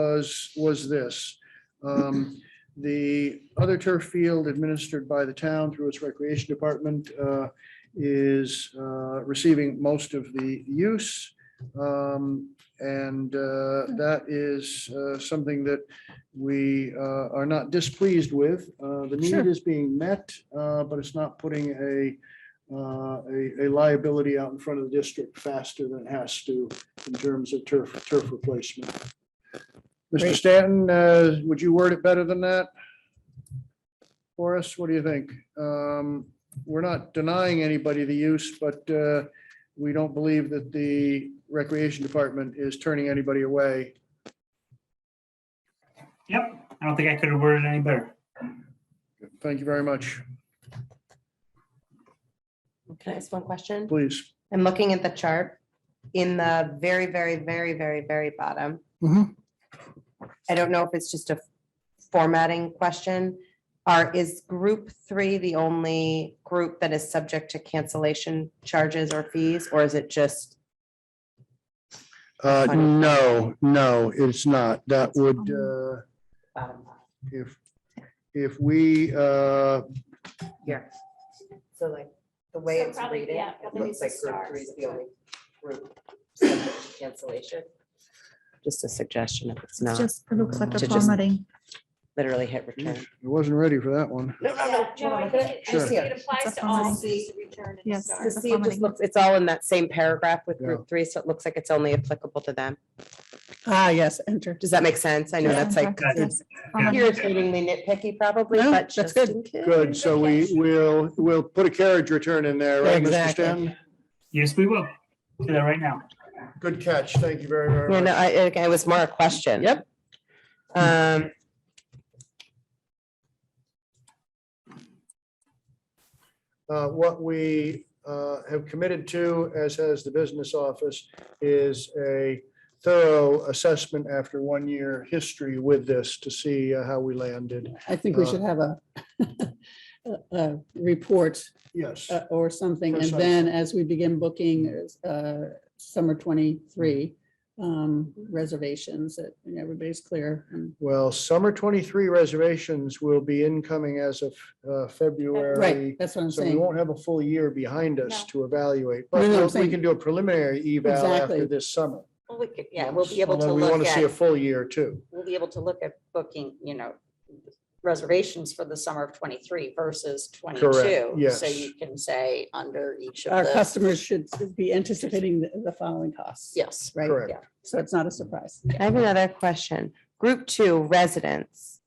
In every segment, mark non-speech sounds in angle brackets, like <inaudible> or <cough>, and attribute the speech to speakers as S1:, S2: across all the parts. S1: was, was this. Um, The other turf field administered by the town through its recreation department uh, is uh, receiving most of the use. Um, And uh, that is uh, something that we uh, are not displeased with. Uh, The need
S2: Sure.
S1: is being met, uh, but it's not putting a, uh, a a liability out in front of the district faster than it has to in terms of turf, turf replacement. Mr.
S2: Great.
S1: Stanton, uh, would you word it better than that? For us, what do you think? Um, We're not denying anybody the use, but uh, we don't believe that the Recreation Department is turning anybody away.
S3: Yep, I don't think I could have worded it any better.
S1: Thank you very much.
S4: Can I ask one question?
S1: Please.
S4: I'm looking at the chart in the very, very, very, very, very bottom.
S1: Mhm.
S4: I don't know if it's just a formatting question. Are, is group three the only group that is subject to cancellation charges or fees, or is it just?
S1: Uh,
S4: Fine.
S1: no, no, it's not. That would, uh,
S4: bottom line
S1: if, if we, uh,
S4: Here. So like, the way
S5: So
S4: it's
S5: probably,
S4: reading,
S5: yeah,
S4: it
S5: probably
S4: looks like
S5: needs to
S4: group
S5: start
S4: three is the only group subject to cancellation. Just a suggestion if it's
S2: It's
S4: not,
S2: just, it looks like
S4: To
S2: a
S4: just-
S2: formatting.
S4: literally hit return.
S1: I wasn't ready for that one.
S4: No, no,
S5: Yeah, no, I think it- I
S1: Sure.
S5: think it applies
S2: It's a
S5: to all
S2: fine.
S5: fees, return and
S2: Yes.
S4: To
S5: start.
S4: see, it just looks, it's all in that same paragraph with
S1: Yeah.
S4: group three, so it looks like it's only applicable to them.
S6: Ah, yes, enter.
S4: Does that make sense? I know that's like
S3: Yeah.
S2: Yes.
S3: Yeah.
S4: irritatingly nitpicky probably,
S6: No,
S4: but
S6: that's
S4: just
S6: good.
S4: in case.
S1: Good, so we will, we'll put a carriage return in there, right, Mr.
S6: Exactly.
S1: Stanton?
S3: Yes, we will. Do that right now.
S1: Good catch, thank you very, very
S4: No, no,
S1: much.
S4: I, it it was more a question.
S6: Yep.
S4: Um.
S1: Uh, What we uh, have committed to, as has the business office, is a thorough assessment after one year history with this to see uh, how we landed.
S6: I think we should have a, <laughs> a, a report
S1: Yes,
S6: uh, or something. And then as we begin booking, uh, summer twenty-three,
S1: Mm-hmm.
S6: um, reservations that you know, everybody's clear. and-
S1: well, summer 23 reservations will be incoming as of uh, February.
S6: Right, that's what I'm
S1: So we
S6: saying.
S1: won't have a full year behind us
S5: No.
S1: to evaluate,
S6: No, no, I'm
S1: but we
S6: saying-
S1: can do a preliminary eval after
S6: Exactly.
S1: this summer.
S7: Well, we could, yeah, we'll be able
S1: Although
S7: to
S1: We want
S7: look
S1: to see a
S7: at,
S1: full year too.
S7: we'll be able to look at booking, you know, reservations for the summer of twenty-three versus twenty-two. So
S1: yes.
S7: you can say under each
S6: Our
S2: Uh,
S7: of
S4: Uh,
S7: the,
S6: customers should be anticipating the, the following costs.
S7: yes.
S6: Right?
S1: Correct.
S6: So it's not a surprise.
S4: I have another question. Group two residents.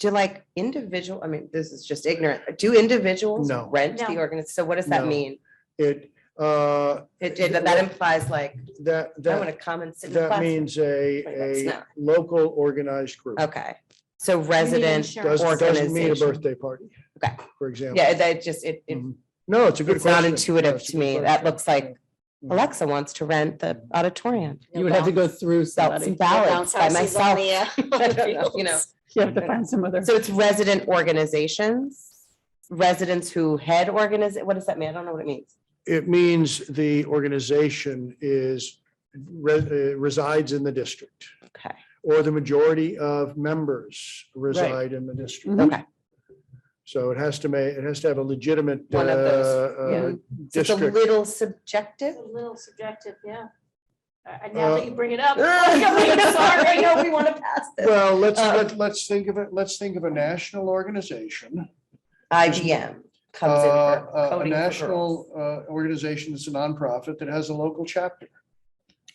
S4: Do like individual, I mean, this is just ignorant. Do individuals
S1: No.
S4: rent the
S5: No.
S4: organization? So what does that
S1: No.
S4: mean?
S1: It, uh,
S4: It, it- that implies like,
S1: that,
S4: I want
S1: that,
S4: to come and sit in the
S1: that
S4: classroom.
S1: means a,
S7: Wait, that's
S1: a
S7: not-
S1: local organized group.
S4: Okay, so resident,
S5: insurance.
S1: Doesn't, doesn't mean a
S4: organization.
S1: birthday party.
S4: Okay.
S1: For example.
S4: yeah, that just, it, it-
S6: Mm-hmm.
S1: Mhm. No, it's a good
S4: it's not
S1: question.
S4: intuitive
S1: That's a
S4: to
S1: good
S4: me. That
S1: question.
S4: looks like
S1: Mhm.
S4: Alexa wants to rent the auditorium.
S6: You would have to go through
S4: Belts and
S6: somebody.
S4: ballots by
S7: Bounce houses on
S4: <laughs> myself.
S7: the, uh, <laughs>
S4: I don't know, You know,
S6: You have to find some other.
S4: so it's resident organizations, residents who head organize, what does that mean? I don't know what it means.
S1: It means the organization is, re- uh, resides in the district.
S4: Okay,
S1: or the majority of members reside in the district.
S6: Mhm.
S4: Mm-hmm. okay.
S1: So it has to make, it has to have a legitimate uh,
S4: One of those,
S1: uh,
S4: So It's a
S1: district.
S4: little
S5: It's
S4: <laughs> subjective.
S5: A little subjective, yeah. Uh, And now
S1: Uh,
S5: that you bring it <laughs> up.
S4: I know we want to pass this.
S1: Well, let's,
S4: Uh,
S1: let- let's think of it, let's think of a national organization.
S4: IGM comes in
S1: uh, A
S4: for coding for girls.
S1: national uh, organization that's a nonprofit that has a local chapter.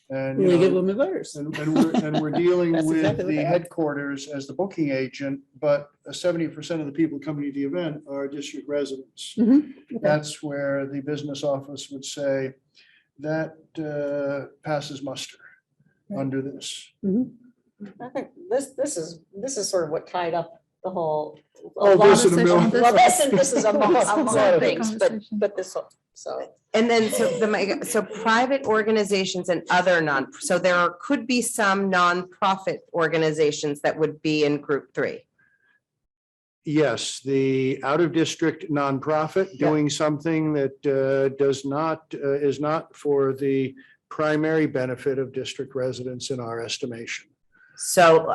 S1: And, you
S6: We give
S1: know,
S6: them the voters.
S1: And, and we're, and we're
S4: <laughs>
S1: dealing
S6: That's
S1: with
S6: exactly what
S1: the
S6: they are.
S1: headquarters as the booking agent, but seventy percent of the people coming to the event are district residents.
S6: Mhm,
S1: That's where the business office would say, that uh, passes muster
S6: Right.
S1: under this.
S6: Mhm.
S7: I think this, this is, this is sort of what tied up the whole.
S1: Oh, this and a
S2: Conversation,
S1: million.
S2: this
S7: Well, this and this is
S2: <laughs>
S7: a
S2: This
S7: lot, a
S2: is
S7: lot
S2: a
S7: of things, but,
S2: conversation.
S7: but this, one, so.
S4: And then, so the, my- so private organizations and other non, so there could be some nonprofit organizations that would be in group three.
S1: Yes, the out-of-district nonprofit
S4: Yeah.
S1: doing something that uh, does not, uh, is not for the primary benefit of district residents in our estimation.
S4: So